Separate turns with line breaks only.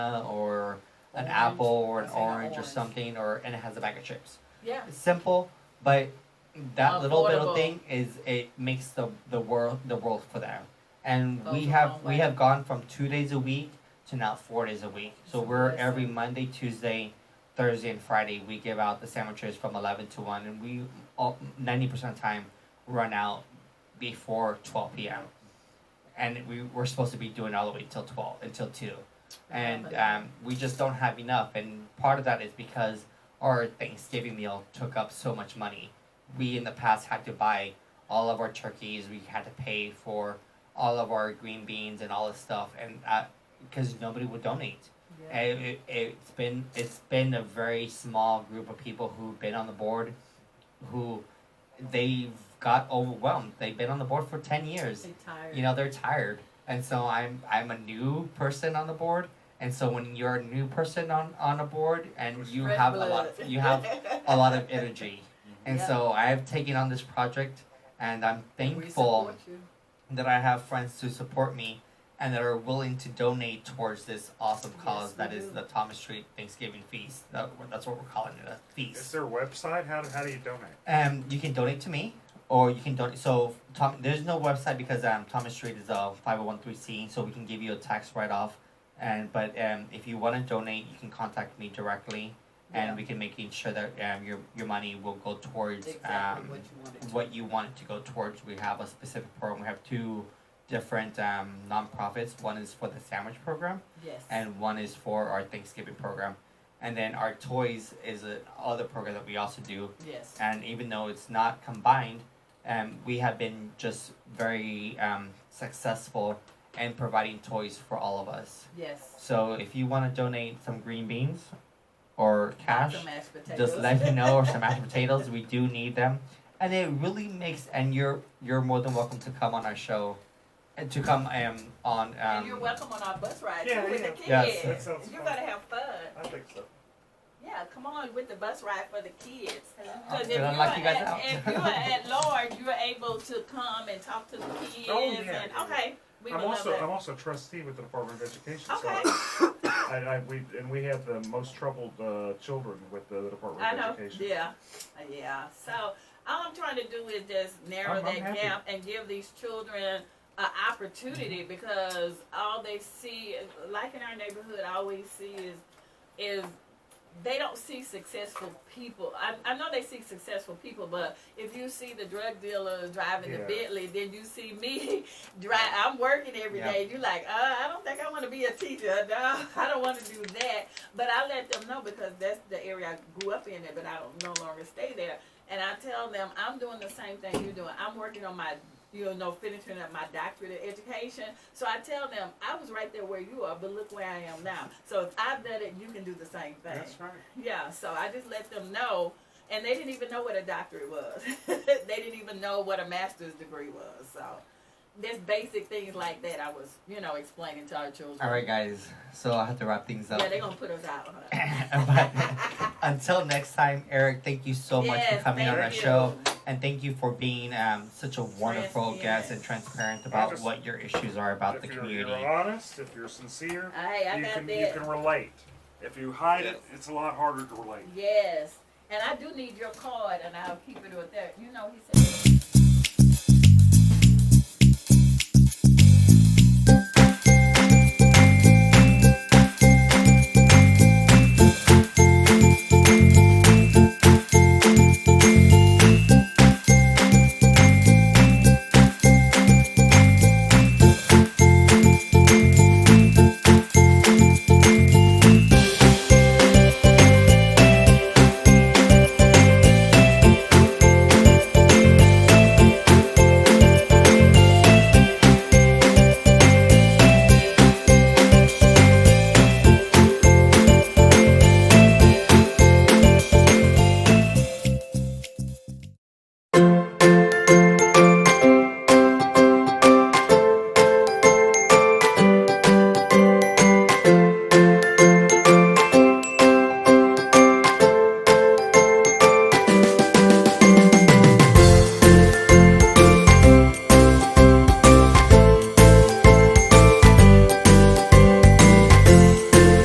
or an
Orange.
apple or an
Say an
orange or
orange.
something, or and it has a bag of chips.
Yeah.
It's simple, but that little little
Affordable.
thing is it makes the the world the world for them. And
Goes
we
a
have
long
we
way.
have gone from two days a week to now four days a week. So
It's
we're
amazing.
every Monday, Tuesday, Thursday, and Friday we give out the sandwiches from eleven to one, and we ninety percent of the time run out before twelve p.m. And we we're supposed to be doing all the way till twelve until two and um, we just don't have enough. And part of that is because our Thanksgiving meal took up so much money. We in the past had to buy all of our turkeys. We had to pay for all of our green beans and all this stuff, and because nobody would donate.
Yeah.
And it, it's been it's been a very small group of people who've been on the board, who they've got overwhelmed. They've been on the board for ten years
They tired.
you know they're tired and so i'm i'm a new person on the board and so when you're a new person on on a board and you
Red
have a
blood.
lot you have a lot of energy and
Yeah.
so i've taken on this project and i'm
We
thankful
support you.
that i have friends to support me and that are willing to donate towards this awesome
Yes,
cause
we
that is
do.
the thomas street thanksgiving feast that, that's what we're calling it a feast
Is there a website? How, how do you donate?
Um, you can donate to me, or you can donate. So Tom, there's no website because um, Thomas Street is a five hundred one three C, so we can give you a tax write off. And but um, if you want to donate, you can contact me directly,
Yeah.
and we can make sure that um, your your money will go towards
Exactly
um,
what you wanted. to.
what you want it to go towards. We have a specific program. We have two different um, nonprofits. One is for the sandwich program
Yes.
and one is for our Thanksgiving program. And then our toys is a other program that we also do
Yes.
and even though it's not combined, um, we have been just very um, successful in providing toys for all of us.
Yes.
So if you want to donate some green beans or cash,
Some mashed potatoes.
just let me know or some mashed potatoes. We do need them, and it really makes. And you're you're more than welcome to come on our show, and to come um on um.
and you're welcome on our bus ride
Yeah,
too with
yeah.
the kids.
Yes.
That sounds
You're
fun.
gonna have fun.
I think so.
Yeah, come on with the bus ride for the kids.
I'm
Because if,
gonna
you
lock
are
you guys
at-
out.
if you are at large, you're able to come and talk to the kids.
Oh, yeah,
and,
yeah,
Okay, we
I'm
would
also
love
I'm
that.
also a trustee with the Department of Education.
Okay.
So I, I, we and we have the most troubled uh, children with the Department
I
of
know.
Education.
Yeah, Uh, yeah. So all I'm trying to do is just narrow
I'm-
that
I'm happy.
gap and give these children an
Mm-hmm.
opportunity because all they see, like in our neighborhood, I always see is is they don't see successful people. I, I know they see successful people, but if you see the drug dealer driving the
Yeah.
Bentley, then you see me drive. I'm working every
Yeah.
day. You're like, uh, I don't think I want to be a teacher. No, I don't want to do that. But I let them know because that's the area I grew up in, but I don't no longer stay there. And I tell them I'm doing the same thing you're doing. I'm working on my, you know, finishing up my doctorate of education. So I tell them I was right there where you are, but look where I am now. So if I've done it, you can do the same thing.
That's right.
Yeah, so I just let them know, and they didn't even know what a doctorate was. they didn't even know what a master's degree was. So, there's basic things like that I was, you know, explaining to our children.
All right, guys. So I have to wrap things up.
Yeah, they're gonna put us out. Huh?
But until next time, Eric, thank you so much for
Yes,
coming on
thank
our
you.
show. And thank you for being um, such a wonderful
Transparent.
guest and transparent about
just-
what your issues are about the
if you're,
community.
you're honest, if you're sincere,
Hey, I
you
got
can
that.
you can relate. If you hide it, it's a lot harder to relate.
Yes, and I do need your card, and I'll keep it with that. You know, he said.